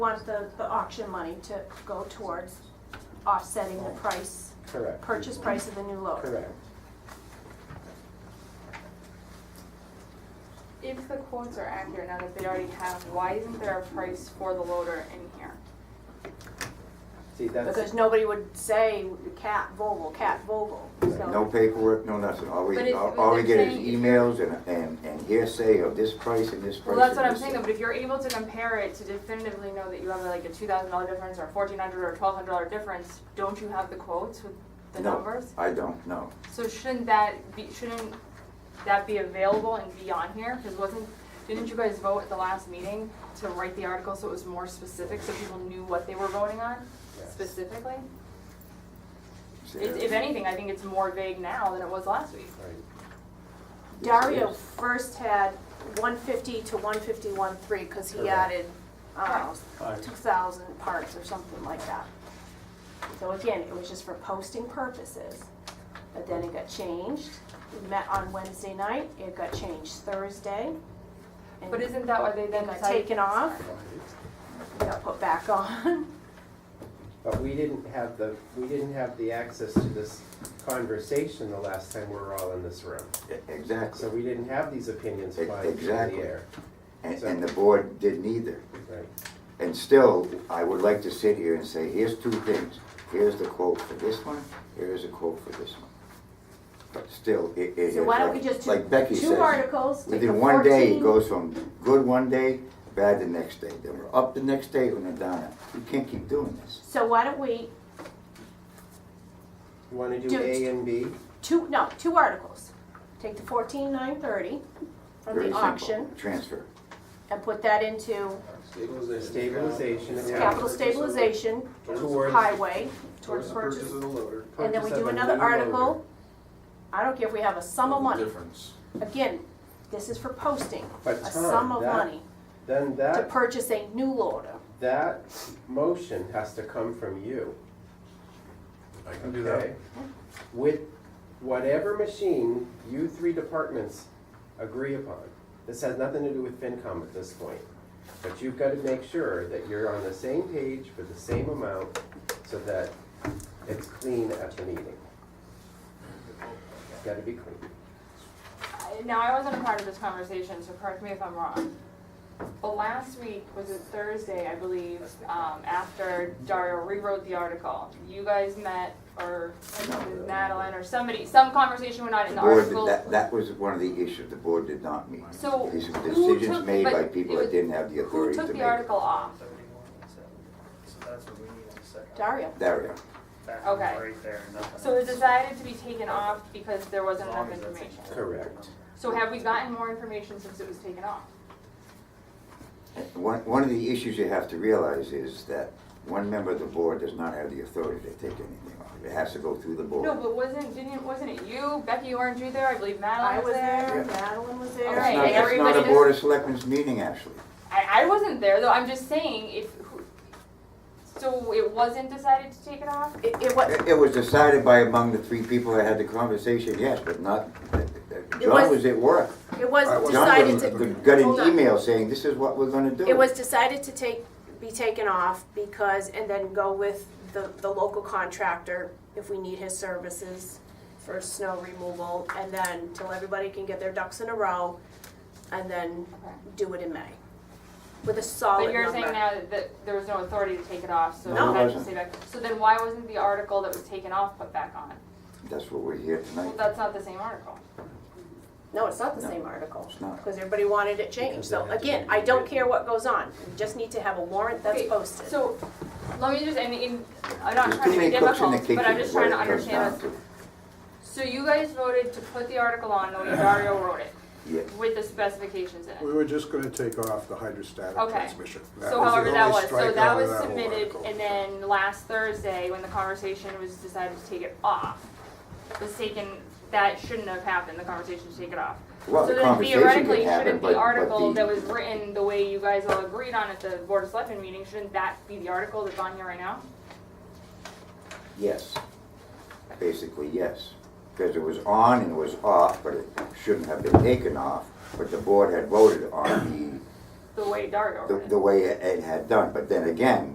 want the, the auction money to go towards offsetting the price, Correct. purchase price of the new loader. Correct. If the quotes are accurate now that they already have, why isn't there a price for the loader in here? See, that's, Because nobody would say cat Vogel, cat Vogel, so. No paperwork, no nothing, all we, But if- all all we get is they're saying- emails and, and, and hearsay of this price and this Well, price. that's and what I'm this saying, price. but if you're able to compare it to definitively know that you have like a two thousand dollar difference or fourteen hundred or twelve hundred dollar difference, don't you have the quotes with the No. numbers? I don't know. So shouldn't that be, shouldn't that be available and be on here? Cause wasn't, didn't you guys vote at the last meeting to write the article so it was more specific, so people knew what they were voting on Yes. specifically? See, If, if anything, I think it's more vague now than it was last week. right. Dario first had one fifty to one fifty-one three, cause he Correct. added, I don't know, two thousand parts or something like that. So again, it was just for posting purposes, but then it got changed, we met on Wednesday night, it got changed Thursday. and But isn't that why they then It got decided- taken off, it got put back on. But we didn't have the, we didn't have the access to this conversation the last time we were all in this room. e- Exactly, So we didn't have these opinions E- flying through the exactly. air. and, and the board didn't either. Right. And still, I would like to sit here and say, here's two things, here's the quote for this one, here's a quote for this one. But still, it, it. So why don't we just do like Becky two says, articles, take the Within one day, it 14. goes from good one day, bad the next day, then we're up the next day, and then down. You can't keep doing this. So why don't we, You wanna do Do- A and B? two, no, two articles, take the fourteen nine thirty from Very the simple. auction Transfer. and put that into Stabilization. Stabilization account. capital stabilization, Towards- highway, towards Towards the purchase. purchase of the loader. And then we purchase of do a another new loader. article, I don't care if we have a sum of money, Difference. again, this is for posting, But a Tom, sum of that- money Then to that, purchase a new loader. that motion has to come from you. I can do that. Okay. With whatever machine you three departments agree upon. This has nothing to do with FinCom at this point. But you've got to make sure that you're on the same page for the same amount so that it's clean at the meeting. It's got to be clean. I- Now, I wasn't a part of this conversation, so correct me if I'm wrong. But last week, was it Thursday, I believe, um, after Dario rewrote the article, you guys met, or Madeline, or somebody, some conversation went on in The the board, article. that, that was one of the issues, the board did not meet. So These were who decisions took- made but by people it that was- didn't have the Who authority to took make. the article off? So that's what we need in a second. Dario, Dario. That Okay. one's right there, nothing So it else. decided to be taken off because there wasn't As enough long as that's- information. Correct. So have we gotten more information since it was taken off? One, one of the issues you have to realize is that one member of the board does not have the authority to take anything off. It has to go through the board. No, but wasn't, didn't, wasn't it you, Becky, weren't you there, I believe I Madeline was was there? there, Madeline was there. All It's right, not- It's not a everybody board of selectmen's meeting, actually. I, I wasn't there though. I'm just saying if. who- So it wasn't decided to take it off. It, it was, It it was decided by among the three people that had the conversation, yes, but not, uh, John was- was at work. it was John got an- decided to, Got Hold an on. email saying, this is what we're gonna do. it was decided to take, be taken off because, and then go with the, the local contractor if we need his services for snow removal, and then till everybody can get their ducks in a row, and then do it in May, with a solid But number. you're saying now that- that there was no authority to take it off, so No, it it had to wasn't. stay back. So then why wasn't the article that was taken off put back on? That's what we're here Well, tonight. that's not the same article. No, it's not the No, same article. it's not. Because everybody wanted it changed, Because so they had to again, be I don't written. care what goes on, we just need to have a warrant that's Okay, posted. So let me just. I mean, I'm not trying There's too to be many cooks in the difficult, kitchen, but I'm is just what trying it to comes understand down this. So to. you guys voted to put the article on the way Dario wrote it Yeah. with the specifications in it. We were just gonna take off the hydrostatic Okay. transmission. That So was the however that only was, so strikeout that of was whole submitted, article. and then last Thursday, when the conversation was decided to take it off, was taken, that shouldn't have happened, the conversation to take it off. Well, the conversation could So then theoretically, happen, shouldn't but- the but article the- that was written the way you guys all agreed on at the Board of Selectmen meeting, shouldn't that be the article that's on here right now? Yes. Basically, yes. Because it was on and it was off, but it shouldn't have been taken off. But the board had voted on the way Dario read the, it. the way Ed had done, but then again,